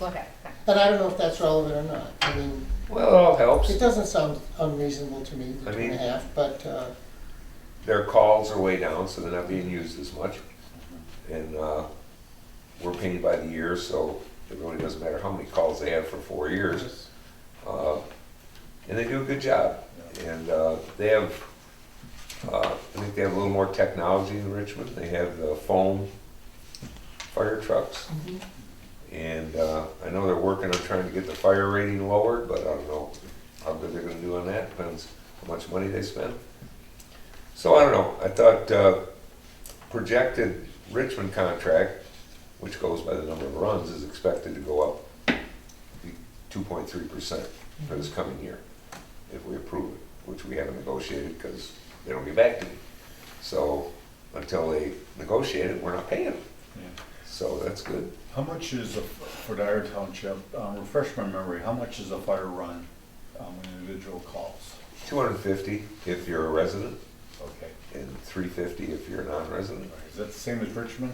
Okay, But I don't know if that's relevant or not. I mean, Well, it all helps. it doesn't sound unreasonable to me, the I two and a mean- half, but, uh, Their calls are way down, so they're not being used as much. And uh, we're paid by the year, so it really doesn't matter how many calls they have for four years. Uh, And they do a good job. And uh, they have, uh, I think they have a little more technology in Richmond. They have the foam fire trucks. Mhm. And uh, I know they're working on trying to get the fire rating lowered, but I don't know how good they're gonna do on that, depends how much money they spend. So I don't know, I thought uh, projected Richmond contract, which goes by the number of runs, is expected to go up two point three percent for this coming year, if we approve it, which we haven't negotiated, because they don't get back to me. So until they negotiate it, we're not paying them, Yeah. so that's good. How much is, a- for Dyer Township, um, refresh my memory, how much is a fire run um, when an individual calls? Two hundred and fifty if you're a resident, Okay, and three fifty if you're a non-resident. is that the same as Richmond?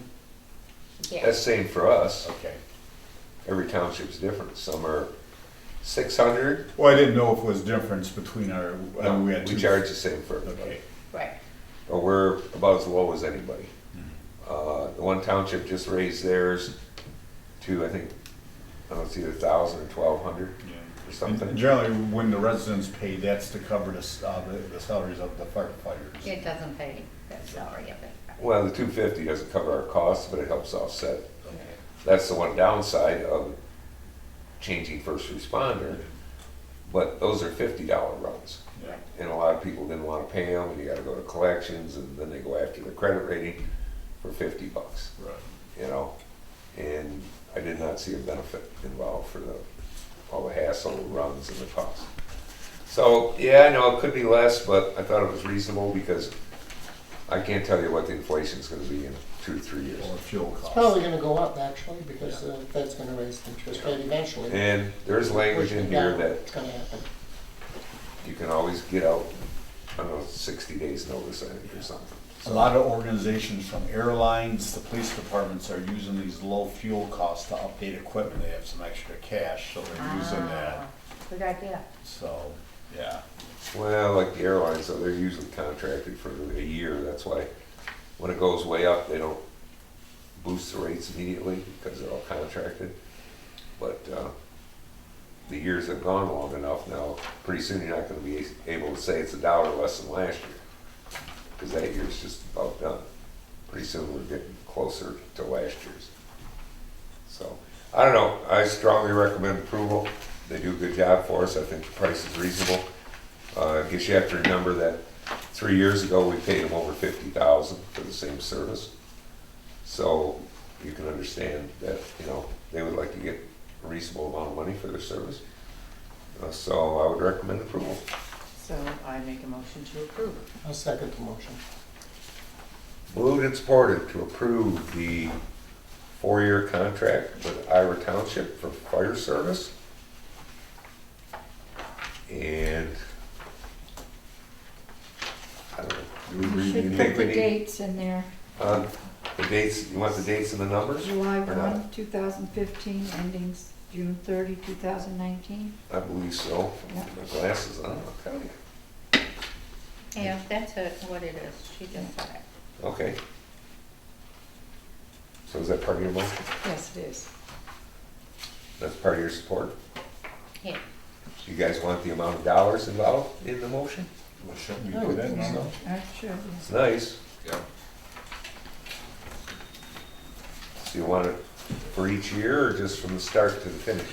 yeah. That's same for us. Okay. Every township's different. Some are six hundred. Well, I didn't know if it was difference between our, I mean, we had two. We charge the same for Okay. everybody. Right. But we're about as low as anybody. Uh, the one township just raised theirs to, I think, I don't see, a thousand or twelve hundred Yeah. or something. And Generally, when the residents pay, that's to cover the, s- uh, the- the salaries of the firefighters. It doesn't pay that salary of it. Well, the two fifty doesn't cover our costs, but it helps offset. Okay. That's the one downside of changing first responder. But those are fifty dollar runs. Yeah. and a lot of people didn't want to pay them, and you got to go to collections, and then they go after their credit rating for fifty bucks, Right. you know. And I did not see a benefit involved for the all the hassle runs and the cost. So yeah, I know it could be less, but I thought it was reasonable because I can't tell you what the inflation's going to be in two to three years. Or fuel it's costs. probably gonna go up actually, because Yeah. uh, the Fed's gonna raise the interest rate eventually. And there's language in here Yeah, that It's gonna happen. you can always get out. I don't know, sixty days notice, I think, or something. A lot of organizations from airlines, the police departments are using these low fuel costs to update equipment. They have some extra cash, so they're using that. Ah, Good idea. So, yeah. Well, like the airlines, so they're usually contracted for a year, that's why when it goes way up, they don't boost the rates immediately because they're all contracted. But, uh, the years have gone long enough now, pretty soon you're not gonna be able to say it's a dollar less than last year. Cause that year's just about done. Pretty soon we're getting closer to last year's. So, I don't know, I strongly recommend approval. They do a good job for us, I think the price is reasonable. Uh, I guess you have to remember that three years ago, we paid them over fifty thousand for the same service. So you can understand that, you know, they would like to get a reasonable amount of money for their service. Uh, So I would recommend approval. So I make a motion to approve. I'll second the motion. Moved and supported to approve the four-year contract with Ira Township for fire service. And I don't know. do we really Should think put we the need- dates in there, Uh, The dates, you want the dates and the numbers? July Or not? one, two thousand fifteen, endings June thirty, two thousand nineteen. I believe so. Yeah. My glasses oh, on, I'll tell you. Yeah, that's it, what it is. She just said it. Okay. So is that part of your motion? Yes, it is. That's part of your support? Yeah. You guys want the amount of dollars involved in the motion? Well, shouldn't we I do would that think now? so. Uh, sure, yes. It's nice. Yeah. So you want it for each year or just from the start to the finish?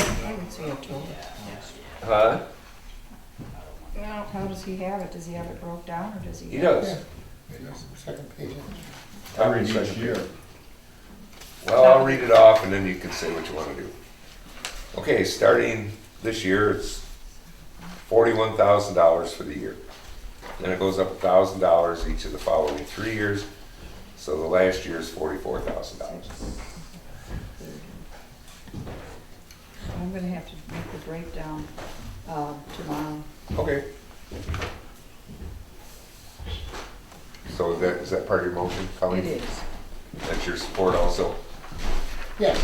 I would say October. Huh? No, How does he have it? Does he have it broke down, or does he? He have- does. Second page. I read each year. Well, I'll read it off and then you can say what you wanna do. Okay, starting this year, it's forty-one thousand dollars for the year. Then it goes up thousand dollars each of the following three years, so the last year is forty-four thousand dollars. I'm gonna have to make the breakdown, uh, tomorrow. Okay. So that, is that part of your motion, Colleen? It is. That's your support also? Yes.